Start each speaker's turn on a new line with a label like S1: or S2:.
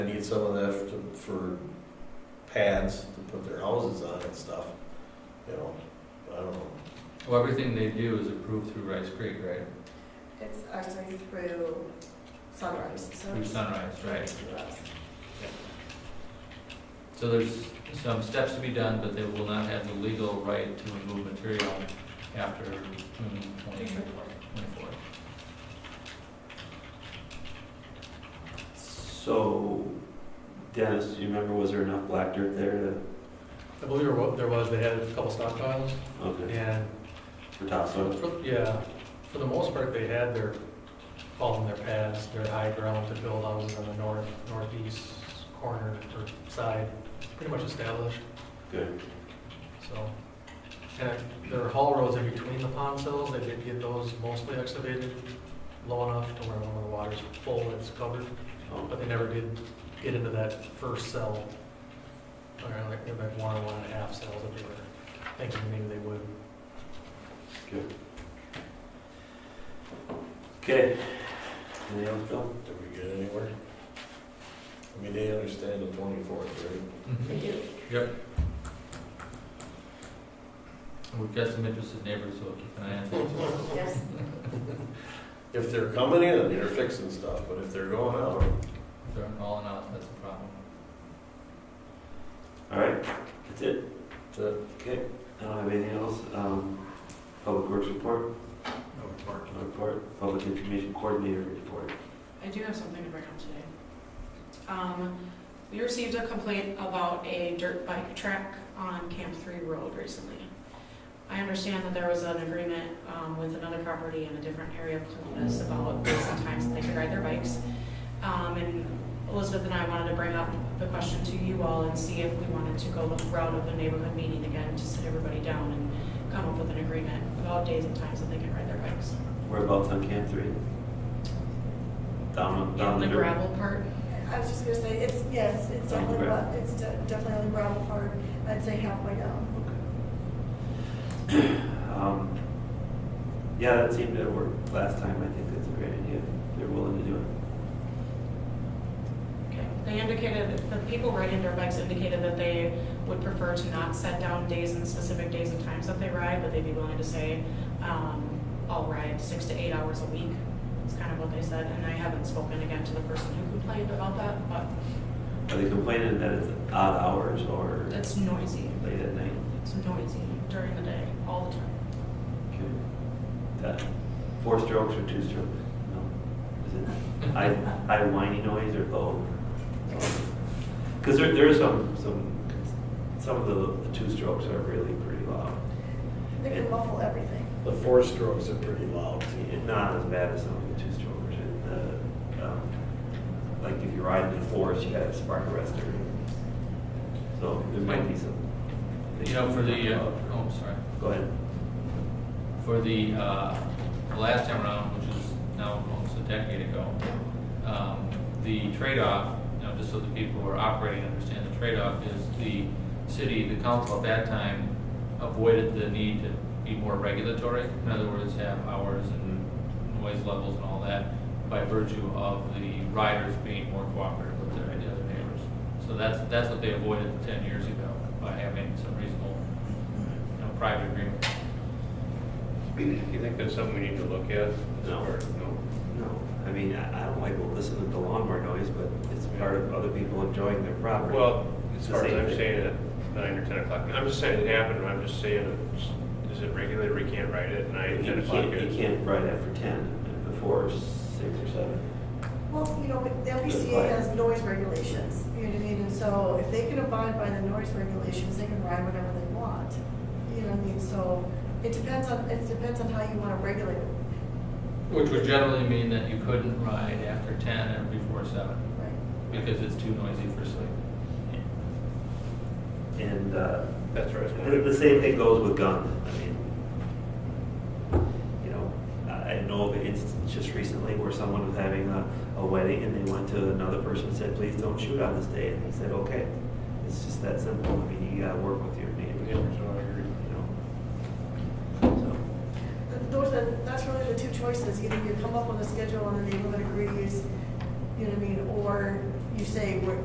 S1: They need some of that to- for pads to put their houses on and stuff, you know, I don't know.
S2: Well, everything they do is approved through Rice Creek, right?
S3: It's actually through Sunrise, so
S2: Through
S3: it's
S2: Sunrise, right?
S3: through us.
S2: So there's some steps to be done, but they will not have the legal right to remove material after June twenty twenty-four.
S4: So, Dennis, do you remember, was there enough black dirt there to,
S5: I believe there wa- there was, they had a couple stockpiles,
S4: okay,
S5: and
S4: for topsoil?
S5: for, yeah, for the most part, they had their, all in their pads, their high ground to build houses on the north, northeast corner or side, pretty much established,
S4: Good,
S5: so. And there are haul roads in between the pond sills, they did get those mostly excavated low enough to where when the water's full, it's covered,
S4: oh,
S5: but they never did get into that first cell. Or like, they're like one or one and a half cells that they were thinking maybe they would.
S4: good. Okay. Any other, Phil?
S1: Did we get anywhere? I mean, they understand the twenty-fourth, right?
S3: We do.
S2: We've got some interested neighbors, so keep an eye on things.
S3: Yes,
S1: If they're coming in, they're fixing stuff, but if they're going out,
S2: If they're hauling out, that's a problem.
S4: All right, that's it.
S1: to,
S4: Okay, I don't have anything else. Um, Public Works report? No report. report. Public Information Coordinator report.
S6: I do have something to bring up today. Um, we received a complaint about a dirt bike track on Camp Three Road recently. I understand that there was an agreement, um, with another property in a different area of Columbus about days and times that they could ride their bikes. Um, and Elizabeth and I wanted to bring up the question to you all and see if we wanted to go the route of the neighborhood meeting again to sit everybody down and come up with an agreement about days and times that they can ride their bikes.
S4: Whereabouts on Camp Three? Down, down
S6: In
S4: the
S6: the
S4: dirt?
S6: gravel part,
S3: I was just gonna say, it's, yes, it's
S4: On the
S3: definitely,
S4: gravel.
S3: about- it's de- definitely on the gravel part, I'd say halfway down.
S4: Um, Yeah, that seemed to work last time. I think that's a great idea. If They're willing to do it.
S6: Okay. They indicated, the people riding their bikes indicated that they would prefer to not set down days and specific days and times that they ride, but they'd be willing to say, um, I'll ride six to eight hours a week. It's kind of what they said, and I haven't spoken again to the person who complained about that, but
S4: Are they complaining that it's odd hours or
S6: it's noisy.
S4: late at night?
S6: It's noisy during the day, all the time.
S4: Okay. That, Uh, four strokes or two strokes? No. Is it high, high whiny noise or low? Because there, there are some, some, some of the, the two strokes are really pretty loud.
S3: They can muffle everything.
S1: the four strokes are pretty loud.
S4: It's Not as bad as some of the two strokers and, uh, um, like if you're riding in the forest, you got a spark arrestor. So there might be some.
S2: You know, for the, uh, oh, I'm sorry.
S4: Go ahead.
S2: for the, uh, the last time around, which is now almost a decade ago, um, the trade-off, you know, just so the people who are operating understand the trade-off, is the city, the council at that time avoided the need to be more regulatory, in other words, have hours and noise levels and all that, by virtue of the riders being more cooperative with their other neighbors. So that's, that's what they avoided ten years ago, by having some reasonable, you know, private agreement.
S7: Do you think that's something we need to look at?
S4: No.
S7: Or, no?
S4: No, I mean, I I don't like to listen to the lawnmower noise, but it's part of other people enjoying their property.
S7: Well,
S4: It's
S7: as
S4: the
S7: far as
S4: same
S7: I'm
S4: thing.
S7: saying, at nine or ten o'clock, I'm just saying it happened, I'm just saying, it's- is it regulated, we can't write it at nine,
S4: You
S7: ten o'clock?
S4: can't, you can't ride after ten, before six or seven.
S3: Well, you know, but the LPCA has noise regulations, you know what I mean, and so if they can abide by the noise regulations, they can ride whatever they want. You know what I mean, so it depends on, it depends on how you wanna regulate it,
S2: Which would generally mean that you couldn't ride after ten or before seven,
S3: right?
S2: because it's too noisy for sleep.
S4: And, uh,
S7: That's right.
S4: The, the same thing goes with guns. I mean, you know, I I know of an instance just recently where someone was having a, a wedding and they went to another person and said, please don't shoot on this day. And he said, okay. It's just that simple. I mean, you gotta work with your neighbors,
S7: Yeah,
S4: you
S7: so I agree.
S4: know? So,
S3: Th- Those are, that's really the two choices, either you come up with a schedule and the neighborhood agrees, you know what I mean, or
S6: you say, we're,